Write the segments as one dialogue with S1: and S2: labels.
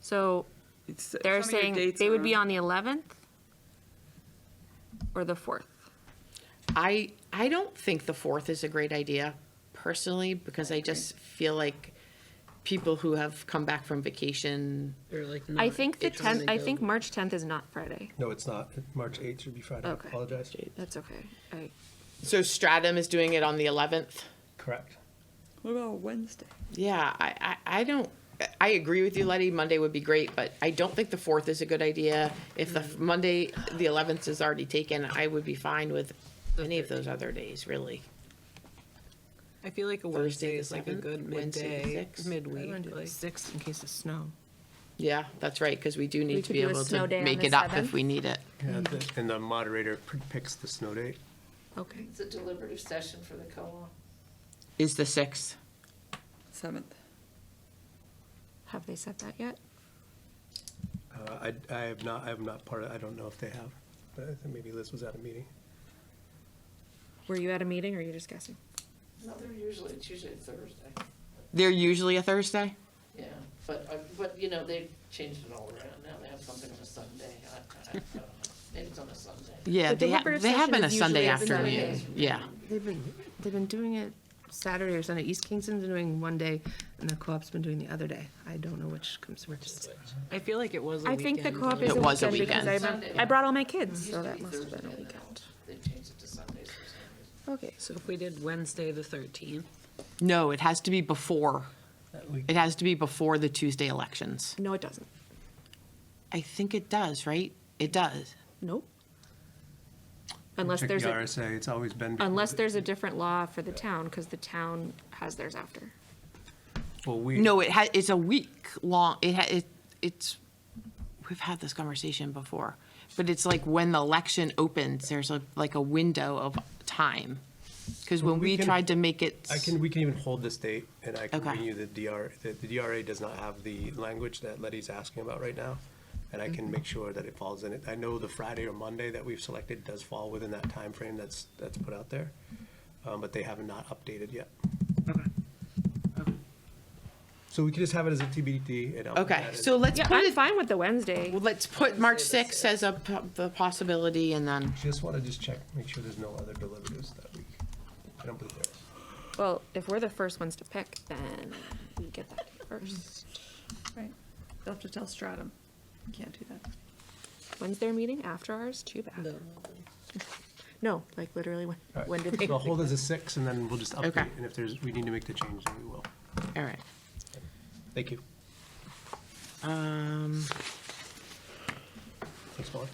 S1: So
S2: It's- uh,
S1: they're
S2: some of your
S1: saying
S2: dates
S1: they would be
S2: are-
S1: on the 11th or the 4th?
S3: I, I don't think the fourth is a great idea personally, because I just feel like people who have come back from vacation,
S4: Or like
S1: I
S4: not
S1: think the
S3: it's
S1: 10th, I
S3: available.
S1: think March 10th is not Friday.
S5: No, it's not. March 8th should be Friday. I
S1: Okay.
S5: Apologize.
S1: That's okay. I-
S3: so Stratham is doing it on the eleventh.
S5: Correct.
S2: What about Wednesday?
S3: Yeah, I, I, I don't, I agree with you, Letty, Monday would be great, but I don't think the fourth is a good idea. If the f- Monday, the eleventh is already taken, I would be fine with any of those other days, really.
S6: I feel like a
S3: Thursday
S6: Wednesday
S3: the
S6: is like a
S3: 7th,
S6: good
S3: Wednesday the
S6: midday,
S3: 6th.
S4: I wanna
S6: midweek.
S4: do like
S6: like-
S4: six in case of snow.
S3: Yeah, that's right, because we do
S1: We
S3: need to
S1: could
S3: be
S1: do a
S3: able
S1: snow
S3: to
S1: day on
S3: make
S1: the
S3: it up if
S1: 7th.
S3: we need it.
S5: And the-
S1: Mm-hmm.
S5: and the moderator p- picks the snow date.
S1: Okay.
S7: It's a deliberative session for the co-op.
S3: Is the sixth,
S2: Seventh.
S1: Have they said that yet?
S5: Uh, I, I have not, I am not part of, I don't know if they have. But I think maybe Liz was at a meeting.
S1: Were you at a meeting or are you just guessing?
S7: No, they're usually, it's usually Thursday,
S3: they're usually a Thursday?
S7: yeah. But, uh, but, you know, they've changed it all around. Now they have something on a Sunday. I- I don't know. Maybe it's on a Sunday.
S3: Yeah,
S1: The
S3: they, ha-
S1: deliberative
S3: they have
S1: session
S3: been a
S1: is usually
S3: Sunday
S1: a Sunday.
S3: afternoon, yeah.
S4: They've been, they've been doing it Saturday or Sunday. East Kingston's been doing one day and the co-op's been doing the other day. I don't know which comes first.
S6: I feel like it was a
S1: I think the
S6: weekend,
S1: co-op
S6: but-
S1: is a
S3: It was a
S1: weekend because I
S3: weekend.
S1: remember, I brought all my kids, so that must have been a weekend.
S7: They changed it to Sundays for some reason.
S1: Okay.
S6: So if we did Wednesday, the thirteenth,
S3: No, it has to be before,
S5: That we-
S3: it has to be before the Tuesday elections.
S1: No, it doesn't.
S3: I think it does, right? It does.
S1: Nope. Unless
S5: Check
S1: there's
S5: the
S1: a,
S5: RSA, it's always been. before
S1: unless
S5: the-
S1: there's a different law for the town, because the town has theirs after.
S5: Well, we.
S3: No, it ha, it's a week long, it ha, it, it's, we've had this conversation before. But it's like when the election opens, there's a, like a window of time. Cause when
S5: we
S3: we
S5: can-
S3: tried to make it.
S5: I can, we can even hold this date and I can
S3: Okay.
S5: bring you the DR, the the DRA does not have the language that Letty's asking about right now. And I
S3: Mm-hmm.
S5: can make sure that it falls in it. I know the Friday or Monday that we've selected does fall within that time frame that's, that's put out there. Um, but they have not updated yet. So we can just have it as a TBD and I'll. put
S3: Okay,
S5: that in.
S3: so let's
S1: Yeah,
S3: put
S1: I'm
S3: it,
S1: fine with the Wednesday.
S3: well, let's put March sixth as a, po- the possibility and then,
S5: Just want to just check, make sure there's no other deliberatives that week. I don't believe there is.
S1: Well, if we're the first ones to pick, then we get that first.
S2: Right. They'll have to tell Stratum. Can't do that.
S1: When's their meeting? After ours? Too bad. No, like literally when,
S5: All right.
S1: when did they?
S5: So I'll hold it as a six and then we'll just update.
S3: Okay.
S5: And if there's, we need to make the change, then we will.
S3: all right.
S5: Thank you.
S3: Um,
S5: Thanks, Molly.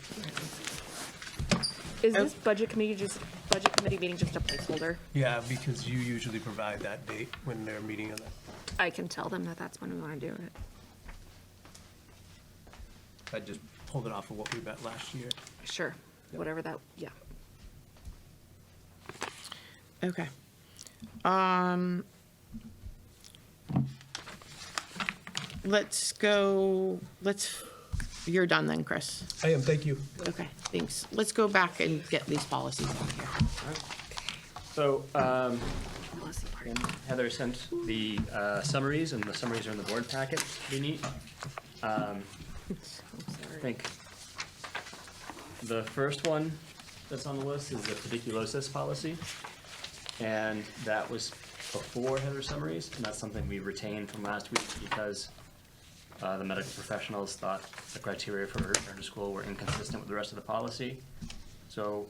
S1: Is this budget committee just, budget committee meeting just a placeholder?
S5: Yeah, because you usually provide that date when they're meeting on that.
S1: I can tell them that that's when we want to do it.
S5: I just pulled it off of what we met last year.
S1: Sure, whatever that, yeah.
S3: okay. Um, let's go, let's, you're done then, Chris.
S5: I am, thank you.
S3: Okay, thanks. Let's go back and get these policies on here.
S8: So um,
S1: Policy part.
S8: Heather sent the uh, summaries, and the summaries are in the board packet. Be neat. Um, I think the first one that's on the list is the pediculosis policy, and that was before Heather's summaries, and that's something we retained from last week because uh, the medical professionals thought the criteria for return to school were inconsistent with the rest of the policy. So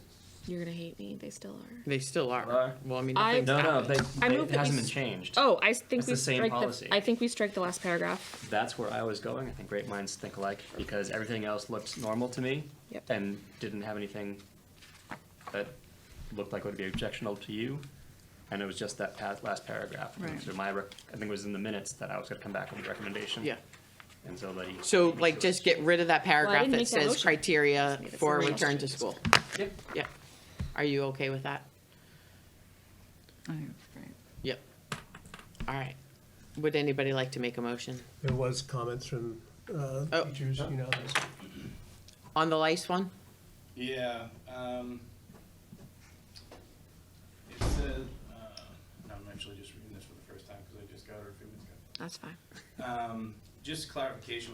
S1: You're gonna hate me, they still are.
S3: They still are.
S8: Are.
S3: Well, I mean,
S1: I-
S3: nothing's
S8: no, no,
S3: happened.
S8: they,
S1: I
S8: they-
S1: move that
S8: it
S1: we
S8: hasn't been
S1: s-
S8: changed.
S1: Oh, I think
S8: That's
S1: we
S8: the same
S1: strike the,
S8: policy.
S1: I think we strike the last paragraph.
S8: that's where I was going. I think great minds think alike because everything else looked normal to me
S1: Yep.
S8: and didn't have anything that looked like would be objectionable to you. And it was just that pa- last paragraph. And
S2: Right.
S8: So my, rec- I think it was in the minutes that I was going to come back with a recommendation.
S3: Yeah.
S8: And so that he.
S3: So like, just get rid of that paragraph
S1: didn't
S3: that
S1: make that
S3: says
S1: motion.
S3: criteria
S1: made it
S3: for
S1: sound like-
S3: return to school.
S8: Yep.
S3: Yep. Are you okay with that?
S2: I think that's great.
S3: Yep. All right. Would anybody like to make a motion
S5: There was comments from uh,
S3: Oh.
S5: teachers, you know, there's-
S3: on the lice one?
S9: Yeah, um, it said, uh, I'm actually just reading this for the first time because I just got it a few minutes ago.
S1: That's fine.
S9: Um, just clarification